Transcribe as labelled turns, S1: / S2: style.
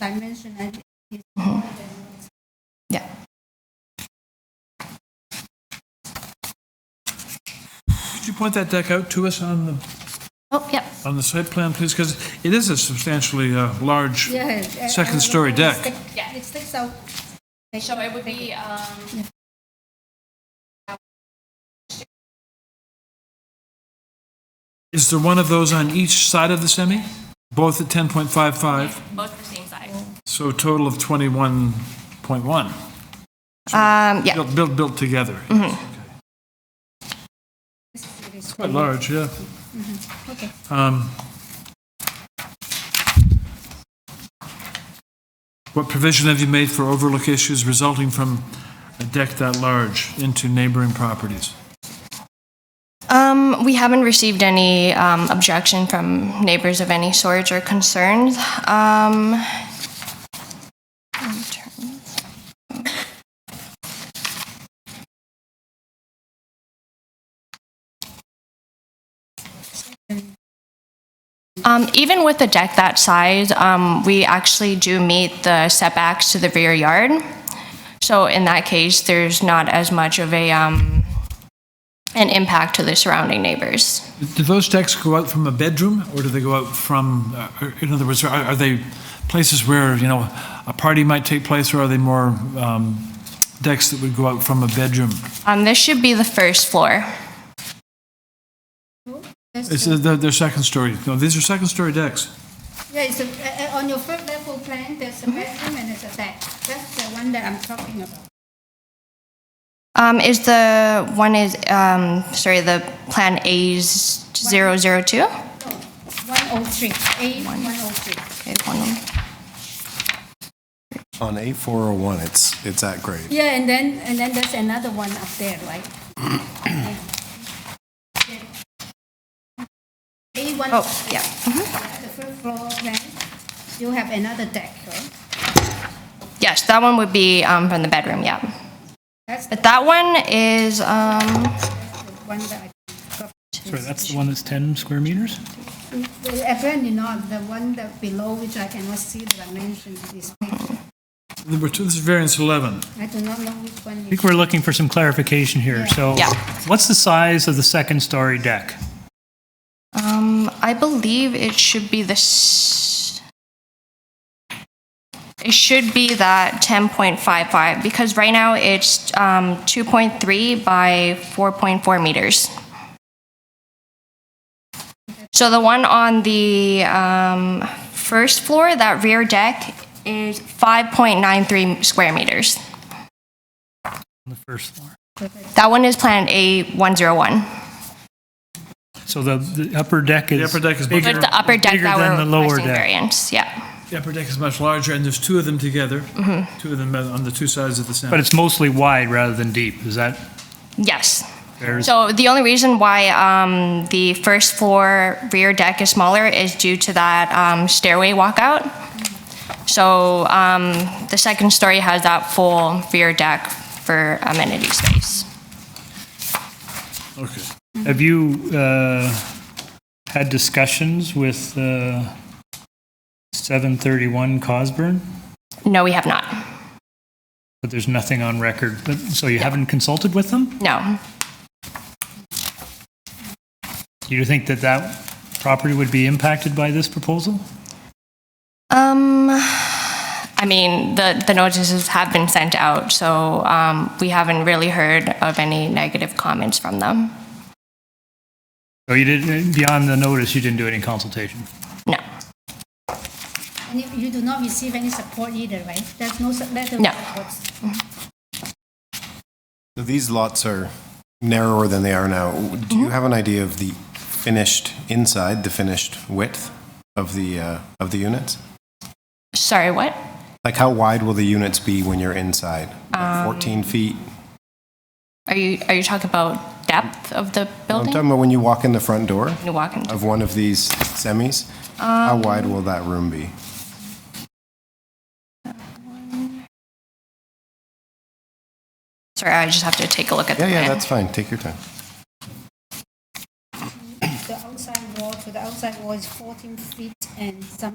S1: dimension and it's
S2: Mhm. Yeah.
S3: Could you point that deck out to us on the,
S2: Oh, yep.
S3: on the site plan, please? Because it is a substantially uh, large,
S1: Yes, uh,
S3: Second
S1: uh,
S3: story
S1: it
S3: deck.
S1: stick-
S2: Yeah.
S1: It sticks out.
S2: So it would be, um,
S3: is there one of those on each side of the semi? Both at 10.55,
S4: both the same size.
S3: so a total of 21.1,
S2: um, yeah,
S3: built, built, built together. Quite large, yeah.
S1: Okay.
S3: Um, What provision have you made for overlook issues resulting from a deck that large into neighboring properties?
S2: Um, we haven't received any um, objection from neighbors of any sort or concerns. Um, in terms of- Um, even with a deck that size, um, we actually do meet the setbacks to the rear yard. So in that case, there's not as much of a um, an impact to the surrounding neighbors.
S3: Do those decks go out from a bedroom, or do they go out from, uh, or- in other words, are are they places where, you know, a party might take place, or are they more um, decks that would go out from a bedroom?
S2: Um, this should be the first floor.
S1: That's
S3: It's,
S1: true.
S3: uh, They're they're second story, no, these are second story decks.
S1: Yeah, it's a, uh, uh, on your first level plan, there's a
S2: Mm-hmm.
S1: bedroom and there's a deck. That's the one that I'm talking about.
S2: Um, is the one is um, sorry the plan A 002?
S1: No, 103, A 103.
S2: Okay, one moment.
S5: On A401, it's, it's at grade.
S1: Yeah, and then, and then there's another one up there, right? A one.
S2: Oh, yeah.
S1: The first floor plan, you have another deck, right?
S2: Yes, that one would be um, from the bedroom. Yeah,
S1: That's the
S2: but that one is um,
S1: one that I got.
S6: Sorry, that's the one that's 10 square meters?
S1: Apparently not, the one that below which I cannot see the dimension of this picture.
S3: Number two, this is variance 11.
S1: I do not know which one
S6: I
S1: is.
S6: think we're looking for some clarification here. So
S2: Yeah.
S6: what's the size of the second story deck?
S2: um, I believe it should be this. It should be that 10.55 because right now it's um, 2.3 by 4.4 meters. So the one on the um, first floor, that rear deck, is 5.93 square meters.
S6: On the first floor.
S2: That one is Plan A101.
S6: So the, the upper deck is.
S3: upper deck is
S6: bigger-
S2: But the upper deck
S6: bigger
S2: that
S6: than the
S2: we're
S6: lower
S2: requesting
S6: deck.
S2: variance, yeah.
S3: The upper deck is much larger, and there's two of them together, two of them on the two sides of the center.
S6: But it's mostly wide rather than deep. Is that
S2: Yes.
S6: fair?
S2: So the only reason why um, the first floor rear deck is smaller is due to that um, stairway walkout. So um, the second story has that full rear deck for amenity space.
S3: Okay.
S2: Mm-hmm.
S6: Have you uh, had discussions with uh, 731 Cosburn?
S2: No, we have not.
S6: But there's nothing on record. But, so you haven't consulted with them?
S2: No.
S6: Do you think that that property would be impacted by this proposal?
S2: Um, I mean, the, the notices have been sent out, so um, we haven't really heard of any negative comments from them.
S6: Or you didn't, beyond the notice, you didn't do any consultation?
S2: No.
S1: And you- you do not receive any support either, right? There's no su- letter. of
S2: No.
S1: supports.
S5: So These lots are narrower than they are now. Do you have an idea of the finished inside, the finished width of the, uh, of the units?
S2: Sorry, what?
S5: Like how wide will the units be when you're inside? Like 14 feet?
S2: Are you are you talking about depth of the
S5: I'm
S2: building?
S5: talking about when you walk in the front door
S2: you walk into.
S5: of one of these semis, how wide will that room be?
S2: Sorry, I just have to take a look at
S5: Yeah,
S2: the
S5: yeah,
S2: plan.
S5: that's fine. Take your time.
S1: The outside wall to the outside wall is 14 feet and some